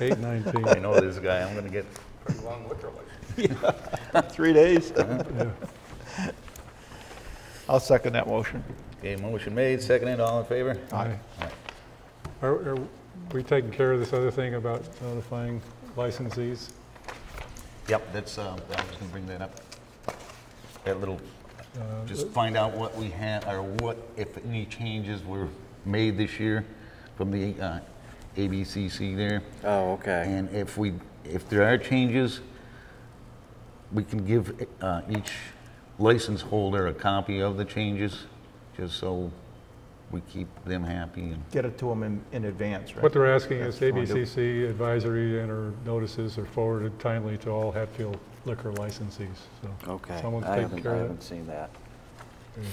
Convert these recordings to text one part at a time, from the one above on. Eight nineteen. I know this guy, I'm gonna get pretty long liquor license. Three days. I'll second that motion. Okay, motion made, seconded, all in favor? Aye. Are, are we taking care of this other thing about notifying licensees? Yep, that's, um, I was gonna bring that up. That little, just find out what we had, or what, if any changes were made this year from the uh, ABCC there. Oh, okay. And if we, if there are changes, we can give uh, each license holder a copy of the changes, just so we keep them happy and Get it to them in, in advance, right? What they're asking is That's what I do. ABCC advisory and or notices are forwarded timely to all Hatfield liquor licensees, so. Okay. Someone's I taking haven't, I care of haven't that. seen that. There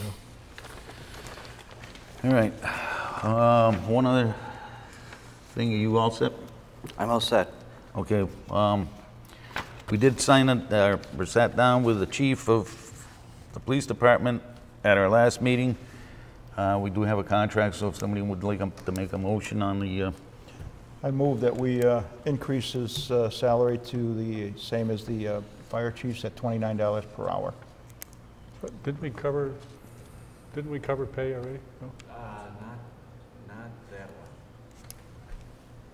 you go. All right. Um, One other thing, are you all set? I'm all set. Okay. um, We did sign, it, uh, we sat down with the chief of the police department at our last meeting. Uh, We do have a contract, so if somebody would like to make a motion on the, uh, I move that we uh, increase his uh, salary to the same as the uh, fire chiefs at $29 per hour. But Didn't we cover, didn't we cover pay already? No? Uh, not, not that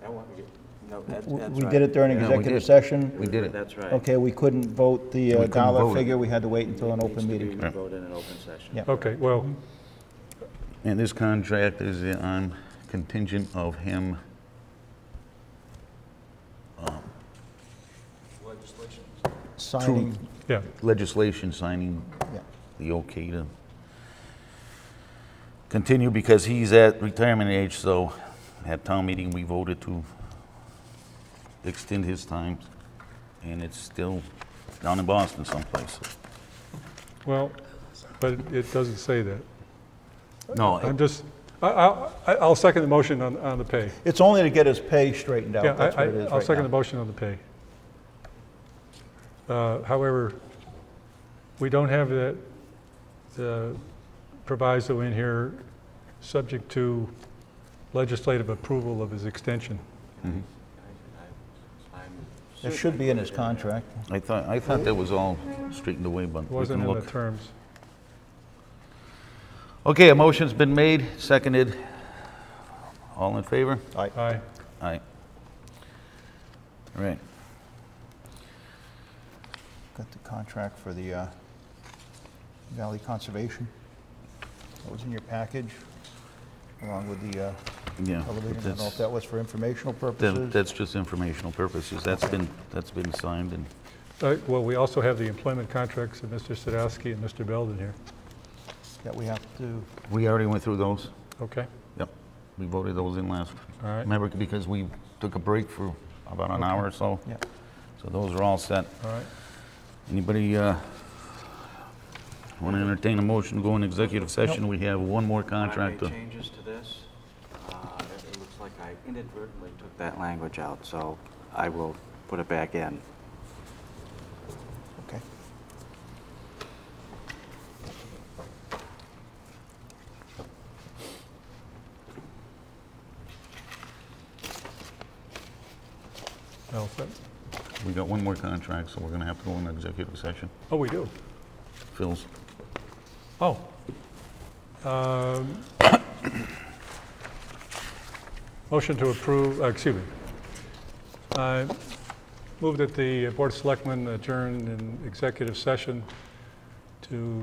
one. That one, you- no, that's, We that's we right. did it during Yeah, we executive did. session. we did it. That's right. Okay, we couldn't vote the uh, couldn't vote dollar it. figure, we had to wait until an It open needs to meeting. be voted in an open session. Yeah. Okay, well, And this contract is on contingent of him, Signing, yeah, legislation signing yeah. the okay to continue because he's at retirement age, so at town meeting, we voted to extend his time, and it's still down in Boston someplace. well, but it doesn't say that. No, I'm it- just, I, I, I- I'll second the motion on, on the pay. It's only to get his pay straightened Yeah, out, that's I, what it is I- I'll right second the now. motion on the pay. Uh, However, we don't have that the proviso in here, subject to legislative approval of his extension. It should be in his contract. I thought, I thought that was all straightened away, but It we wasn't can in the look. terms. Okay, a motion's been made, seconded. All in favor? Aye. Aye. All right. Got the contract for the uh, Valley Conservation. That was in your package, along with the uh, Yeah. elevator. I don't know that's- if that was for informational That- purposes. That's just informational purposes. That's been, that's been signed and, Uh, Well, we also have the employment contracts of Mr. Sadowski and Mr. Belden here. That we have to, we already went through those. Okay, Yep. We voted those in last. all right, Remember, because we took a break for about an hour or so. yeah. So those are all set. all right. Anybody want to entertain a motion to go in executive session? We have one more contract. I to- made changes to this. Uh, It it looks like I inadvertently took that language out, so I will put it back in. Okay. All set. We got one more contract, so we're going to have to go in executive session. Oh, we do? Phil's. Oh. Um, Motion to approve, uh, excuse me. I Move that the Board of Selectmen adjourn in executive session to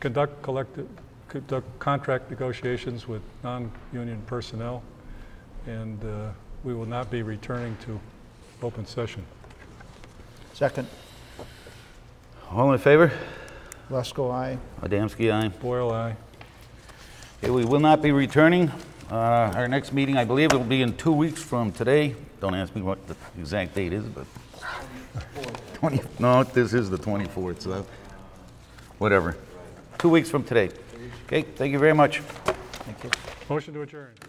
conduct collective, conduct contract negotiations with non-union personnel, and uh, we will not be returning to open session. Second, All in favor? Lesko, aye. Adamski, aye. Boyle, aye. Okay, we will not be returning. Uh, Our next meeting, I believe, will be in two weeks from today. Don't ask me what the exact date is, but... 20, no, this is the 24th, so, whatever. Two weeks from today. Okay, thank you very much. Thank you. Motion to adjourn.